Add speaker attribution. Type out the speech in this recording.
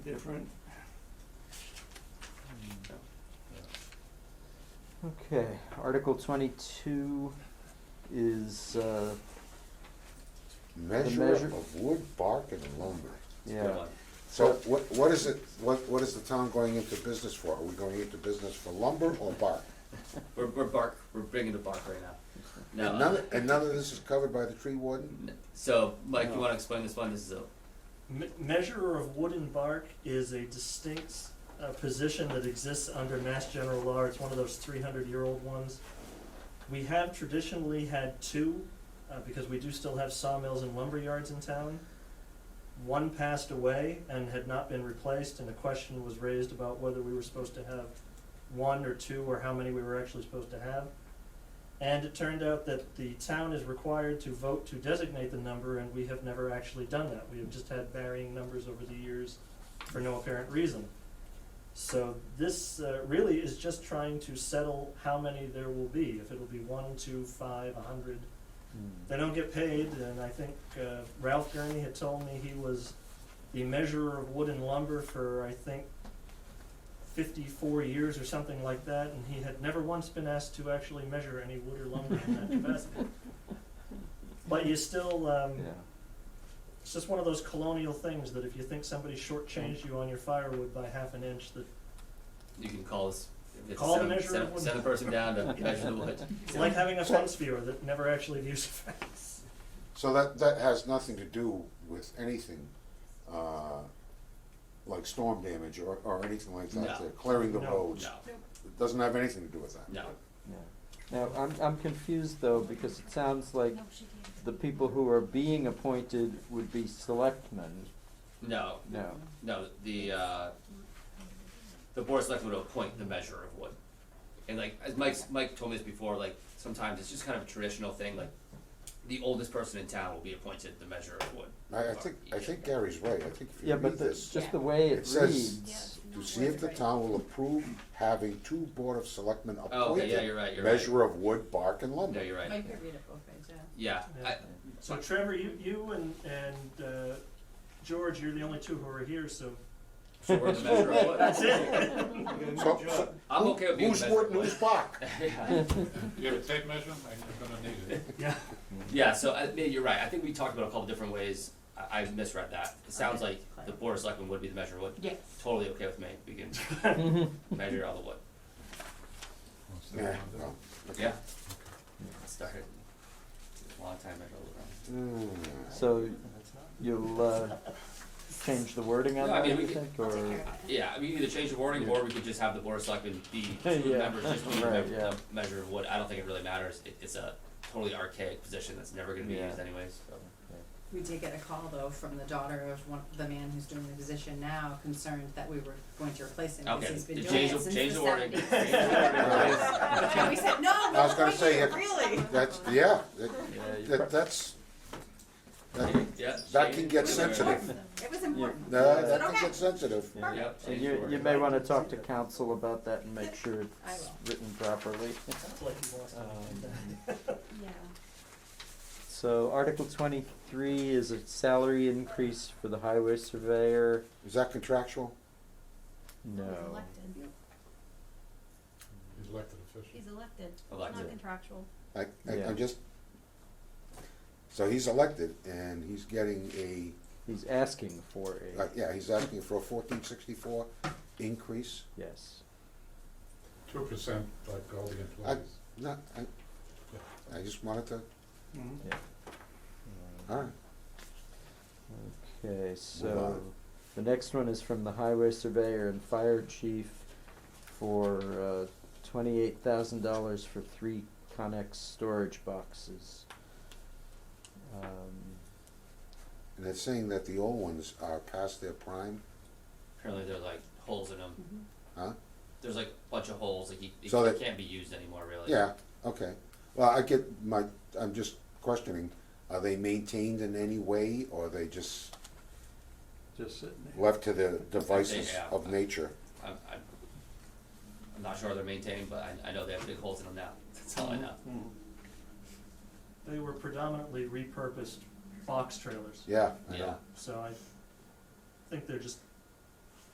Speaker 1: different.
Speaker 2: Okay, Article twenty-two is, uh,
Speaker 3: Measure
Speaker 2: measure-
Speaker 3: of wood, bark, and lumber.
Speaker 2: yeah,
Speaker 3: So what, what is it, what, what is the town going into business for? Are we going into business for lumber or bark?
Speaker 4: We're, we're bark. We're bringing the bark right now.
Speaker 3: And
Speaker 4: No.
Speaker 3: none,
Speaker 4: uh,
Speaker 3: and none of this is covered by the tree warden?
Speaker 4: So, Mike,
Speaker 1: No.
Speaker 4: you want to explain this one? This is a
Speaker 5: Me- Measurer of wood and bark is a distinct uh, position that exists under Mass General Law. It's one of those 300 year old ones. We have traditionally had two uh, because we do still have sawmills and lumber yards in town. One passed away and had not been replaced, and a question was raised about whether we were supposed to have one or two or how many we were actually supposed to have. And it turned out that the town is required to vote to designate the number, and we have never actually done that. We have just had varying numbers over the years for no apparent reason. So this uh, really is just trying to settle how many there will be, if it'll be one, two, five, a hundred.
Speaker 2: Hmm,
Speaker 5: They don't get paid, and I think uh, Ralph Gurney had told me he was the measurer of wood and lumber for, I think, fifty-four years or something like that, and he had never once been asked to actually measure any wood or lumber in that capacity. But you still, um,
Speaker 2: yeah.
Speaker 5: it's just one of those colonial things that if you think somebody shortchanged you on your firewood by half an inch, that
Speaker 4: you can call us. if
Speaker 5: Call the
Speaker 4: send,
Speaker 5: measure
Speaker 4: send,
Speaker 5: of wood.
Speaker 4: send the person down to measure the wood.
Speaker 5: it's like having a fence viewer that never actually views a fence.
Speaker 3: So that, that has nothing to do with anything, uh, like storm damage or, or anything like that,
Speaker 4: No.
Speaker 3: They're clearing the
Speaker 5: No.
Speaker 3: roads.
Speaker 4: No,
Speaker 3: It Doesn't have anything to do with that.
Speaker 4: no.
Speaker 2: Yeah. Now, I'm, I'm confused though, because it sounds like the people who are being appointed would be selectmen.
Speaker 4: No,
Speaker 2: No,
Speaker 4: no, the, uh, the board of selectmen will appoint the measurer of wood. And like, as Mike's, Mike told me this before, like, sometimes it's just kind of a traditional thing, like, the oldest person in town will be appointed the measurer of wood.
Speaker 3: I, I think, I think Gary's right, I think if you
Speaker 2: yeah,
Speaker 3: read
Speaker 2: but the,
Speaker 3: this,
Speaker 2: just the way
Speaker 3: It
Speaker 2: it
Speaker 3: says-
Speaker 2: reads,
Speaker 3: to see if the town will approve having two board of selectmen
Speaker 4: Oh, okay, yeah,
Speaker 3: appointed
Speaker 4: you're right, you're right.
Speaker 3: measure of wood, bark, and lumber.
Speaker 4: No, you're right.
Speaker 6: Mike could read it both ways, yeah.
Speaker 4: Yeah, I,
Speaker 5: So Trevor, you, you and, and, uh, George, you're the only two who are here, so
Speaker 4: so we're the measurer of wood.
Speaker 5: that's it.
Speaker 1: You got a new
Speaker 3: So-
Speaker 1: job.
Speaker 4: I'm okay with being the
Speaker 3: Who's
Speaker 4: measurer
Speaker 3: wood
Speaker 4: of
Speaker 3: and
Speaker 4: wood.
Speaker 3: who's bark?
Speaker 7: You have a tape measure? I'm gonna need it.
Speaker 5: Yeah.
Speaker 4: Yeah, so I, yeah, you're right. I think we talked about a couple different ways. I, I misread that. It sounds
Speaker 6: Okay.
Speaker 4: like the board of selectmen would be the measure of wood.
Speaker 6: Yes.
Speaker 4: Totally okay with me. We can measure all the wood.
Speaker 3: Yeah, well, okay.
Speaker 4: Yeah. Started a long time ago.
Speaker 3: Hmm.
Speaker 2: so you'll, uh, change the wording on
Speaker 4: No, I
Speaker 2: that,
Speaker 4: mean,
Speaker 2: you
Speaker 4: we could-
Speaker 2: think, or?
Speaker 4: Yeah, we can either change the wording or we could just have the board of selectmen be two
Speaker 2: Yeah.
Speaker 4: members just to
Speaker 2: Right,
Speaker 4: remember
Speaker 2: yeah.
Speaker 4: the measure of wood. I don't think it really matters. It, it's a totally archaic position that's never going to be
Speaker 2: Yeah.
Speaker 4: used anyways. So.
Speaker 6: We did get a call though from the daughter of one, the man who's doing the position now, concerned that we were going to replace him because
Speaker 4: Okay,
Speaker 6: he's been
Speaker 4: change
Speaker 6: doing
Speaker 4: the-
Speaker 6: it since the seventies.
Speaker 4: change the wording. Change
Speaker 3: the
Speaker 6: And we said, no,
Speaker 3: I was
Speaker 6: no,
Speaker 3: gonna
Speaker 6: we
Speaker 3: say,
Speaker 6: can't,
Speaker 3: if-
Speaker 6: really.
Speaker 3: That's, yeah, that,
Speaker 2: Yeah, you
Speaker 3: that,
Speaker 2: prob-
Speaker 3: that's, that,
Speaker 4: Yeah,
Speaker 3: that
Speaker 4: change-
Speaker 3: can get
Speaker 4: Yeah.
Speaker 3: sensitive.
Speaker 6: It was important.
Speaker 3: that,
Speaker 6: Is it
Speaker 3: that can
Speaker 6: okay?
Speaker 3: get sensitive.
Speaker 2: yeah.
Speaker 4: Yep.
Speaker 2: And
Speaker 4: change the
Speaker 2: you, you
Speaker 4: wording.
Speaker 2: may wanna talk to council about that and make sure
Speaker 6: I
Speaker 2: it's
Speaker 6: will.
Speaker 2: written properly.
Speaker 5: Sounds like he wants to.
Speaker 2: Um,
Speaker 8: Yeah.
Speaker 2: So Article twenty-three is a salary increase for the highway surveyor.
Speaker 3: Is that contractual?
Speaker 2: No.
Speaker 8: He's elected.
Speaker 7: He's elected official.
Speaker 8: He's elected.
Speaker 4: Elected.
Speaker 8: Not contractual.
Speaker 3: I, I,
Speaker 2: Yeah.
Speaker 3: I'm just, so he's elected and he's getting a,
Speaker 2: He's asking for a,
Speaker 3: like, yeah, he's asking for a fourteen sixty-four increase.
Speaker 2: yes.
Speaker 7: Two percent like all the employees.
Speaker 3: No, I, I just wanted to,
Speaker 5: Mm-hmm.
Speaker 1: Mhm.
Speaker 3: alright,
Speaker 2: Okay, so
Speaker 3: on.
Speaker 2: the next one is from the highway surveyor and fire chief for uh, twenty-eight thousand dollars for three Connex storage boxes. Um,
Speaker 3: and it's saying that the old ones are past their prime,
Speaker 4: Apparently there's like holes in them.
Speaker 3: huh?
Speaker 4: There's like a bunch of holes. Like he, he
Speaker 3: So that-
Speaker 4: can't be used anymore, really.
Speaker 3: Yeah, okay, well, I get my, I'm just questioning, are they maintained in any way, or are they just
Speaker 1: Just sitting there.
Speaker 3: left to the devices
Speaker 4: have.
Speaker 3: of nature?
Speaker 4: I'm, I'm, I'm not sure they're maintained, but I, I know they have big holes in them now. That's all I know.
Speaker 1: Mhm.
Speaker 5: They were predominantly repurposed box trailers,
Speaker 3: Yeah, I
Speaker 4: Yeah.
Speaker 3: know,
Speaker 5: so I think they're just